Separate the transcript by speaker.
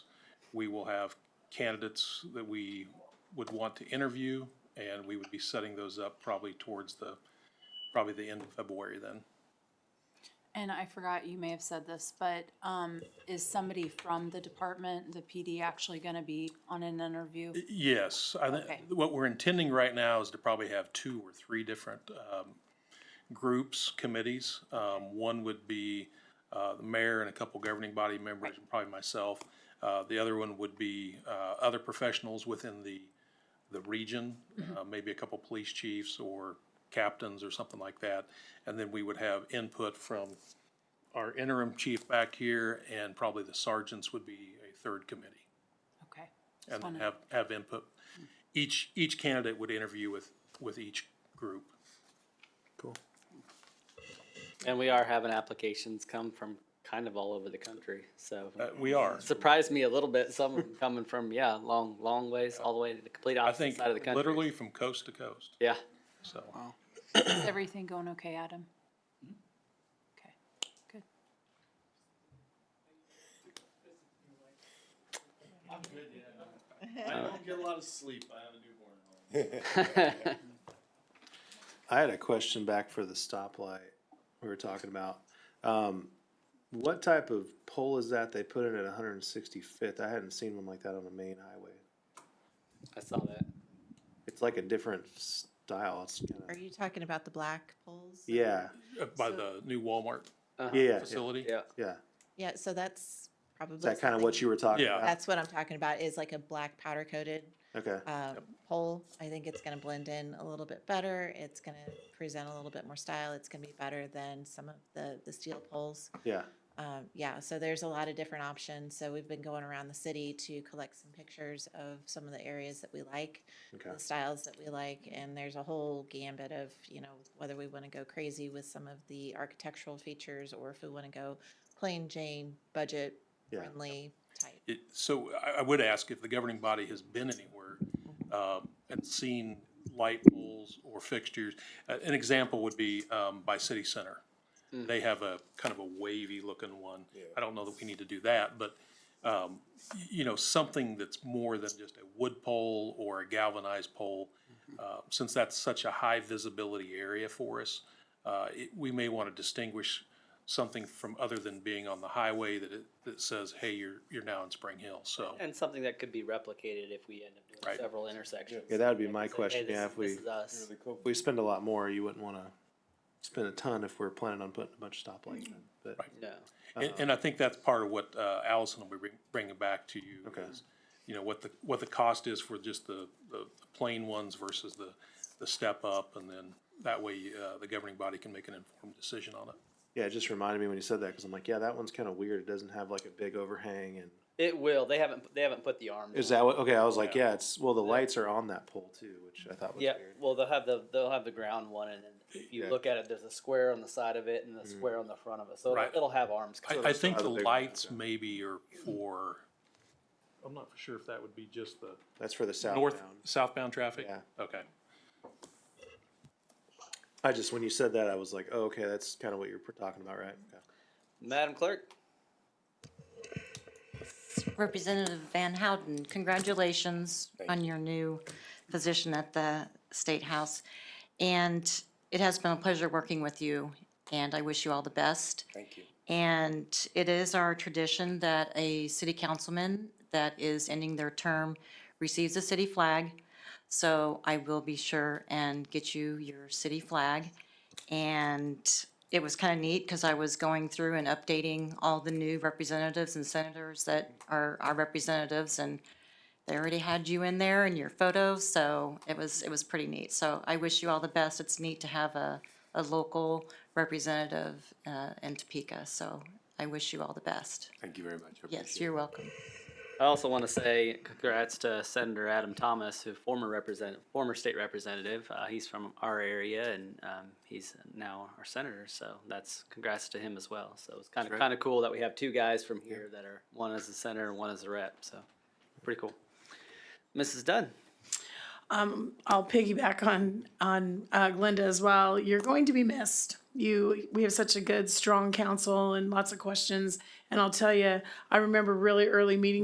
Speaker 1: We will have candidates that we would want to interview, and we would be setting those up probably towards the, probably the end of February then.
Speaker 2: And I forgot, you may have said this, but um, is somebody from the department, the PD, actually gonna be on an interview?
Speaker 1: Yes, I think,
Speaker 2: Okay.
Speaker 1: what we're intending right now is to probably have two or three different, um, groups, committees. Um, one would be, uh, the mayor and a couple governing body members, and probably myself. Uh, the other one would be, uh, other professionals within the, the region, uh, maybe a couple police chiefs or captains or something like that. And then we would have input from our interim chief back here, and probably the sergeants would be a third committee
Speaker 2: Okay. Just
Speaker 1: and then
Speaker 2: wanna-
Speaker 1: have, have input. Each, each candidate would interview with, with each group.
Speaker 3: Cool.
Speaker 4: And we are having applications come from kind of all over the country, so.
Speaker 1: Uh, we are.
Speaker 4: Surprised me a little bit, some of them coming from, yeah, long, long ways, all the way to the complete
Speaker 1: I
Speaker 4: opposite
Speaker 1: think
Speaker 4: side of the country.
Speaker 1: literally from coast to coast,
Speaker 4: Yeah,
Speaker 1: so.
Speaker 2: Is everything going okay, Adam? Okay, good.
Speaker 5: I'm good, yeah. I don't get a lot of sleep. I have a newborn at home.
Speaker 3: I had a question back for the stoplight we were talking about. Um, what type of pole is that they put in at 165th? I hadn't seen one like that on the main highway.
Speaker 4: I saw that.
Speaker 3: It's like a different style. It's kind
Speaker 6: Are
Speaker 3: of
Speaker 6: you talking about the black poles?
Speaker 3: yeah,
Speaker 1: Uh, By
Speaker 6: So-
Speaker 1: the new Walmart
Speaker 4: Uh-huh.
Speaker 3: yeah, yeah,
Speaker 1: facility.
Speaker 4: Yeah,
Speaker 3: yeah.
Speaker 6: Yeah, so that's probably.
Speaker 3: Is that kind of what
Speaker 6: something-
Speaker 3: you were talking
Speaker 1: Yeah.
Speaker 3: about?
Speaker 6: That's what I'm talking about, is like a black powder coated
Speaker 3: Okay,
Speaker 6: uh, pole. I think it's gonna blend in a little bit better. It's gonna present a little bit more style. It's gonna be better than some of the, the steel poles.
Speaker 3: yeah.
Speaker 6: Um, yeah, so there's a lot of different options. So we've been going around the city to collect some pictures of some of the areas that we like,
Speaker 3: Okay.
Speaker 6: the styles that we like, and there's a whole gambit of, you know, whether we want to go crazy with some of the architectural features or if we want to go plain Jane, budget
Speaker 3: Yeah.
Speaker 6: friendly type.
Speaker 1: It, so I, I would ask if the governing body has been anywhere, um, and seen light poles or fixtures. Uh, an example would be, um, by city center. They have a kind of a wavy looking one. I don't know that we need to do that, but, um, y- you know, something that's more than just a wood pole or a galvanized pole. Uh, since that's such a high visibility area for us, uh, it, we may want to distinguish something from other than being on the highway that it, that says, hey, you're, you're now in Spring Hill, so.
Speaker 4: and something that could be replicated if we end up doing
Speaker 1: Right.
Speaker 4: several intersections.
Speaker 3: Yeah, that would be
Speaker 4: Like,
Speaker 3: my
Speaker 4: it's like, hey,
Speaker 3: question,
Speaker 4: this
Speaker 3: yeah,
Speaker 4: is-
Speaker 3: if we-
Speaker 4: This is us.
Speaker 3: If we spend a lot more, you wouldn't want to spend a ton if we're planning on putting a bunch of stoplights in. But
Speaker 4: No,
Speaker 3: Uh-huh.
Speaker 1: And, and I think that's part of what, uh, Allison will be bring- bringing back to you.
Speaker 3: Okay.
Speaker 1: is, You know, what the, what the cost is for just the, the plain ones versus the, the step up, and then that way, uh, the governing body can make an informed decision on it.
Speaker 3: yeah, it just reminded me when you said that because I'm like, yeah, that one's kind of weird. It doesn't have like a big overhang and.
Speaker 4: it will, they haven't, they haven't put the arm.
Speaker 3: Is
Speaker 4: down.
Speaker 3: that what, okay, I was like, yeah, it's, well, the lights are on that pole too, which I thought was
Speaker 4: Yeah,
Speaker 3: weird.
Speaker 4: well, they'll have the, they'll have the ground one and then if you
Speaker 3: Yeah. Mm-hmm.
Speaker 4: look at it, there's a square on the side of it and a square on the front of it, so
Speaker 1: Right.
Speaker 4: it'll- it'll have arms.
Speaker 1: I, I
Speaker 3: that's
Speaker 1: think
Speaker 3: not
Speaker 1: the
Speaker 3: a big one,
Speaker 1: lights
Speaker 3: okay.
Speaker 1: maybe are for, I'm not sure if that would be just the
Speaker 3: That's for the southbound.
Speaker 1: north, southbound traffic?
Speaker 3: Yeah.
Speaker 1: Okay.
Speaker 3: I just, when you said that, I was like, oh, okay, that's kind of what you're pr- talking about, right? Okay.
Speaker 4: Madam Clerk?
Speaker 7: Representative Van Houten, congratulations on your new position at the State House. And it has been a pleasure working with you, and I wish you all the best. Thank you. And it is our tradition that a city councilman that is ending their term receives a city flag. So I will be sure and get you your city flag. And it was kind of neat because I was going through and updating all the new representatives and senators that are our representatives and they already had you in there and your photo, so it was, it was pretty neat. So I wish you all the best. It's neat to have a, a local representative uh, in Topeka, so I wish you all the best.
Speaker 8: Thank you very much. I
Speaker 7: Yes,
Speaker 8: appreciate
Speaker 7: you're welcome.
Speaker 4: I also want to say congrats to Senator Adam Thomas, who former represent, former state representative. Uh, he's from our area and um, he's now our senator. So that's congrats to him as well. So it's kind of
Speaker 8: That's right.
Speaker 4: kind of cool that we have two guys from here that are one as a senator and one as a rep. So pretty cool. Mrs. Dunn.
Speaker 9: I'll piggyback on on uh, Glenda as well. You're going to be missed. You, we have such a good, strong council and lots of questions. And I'll tell you, I remember really early meetings.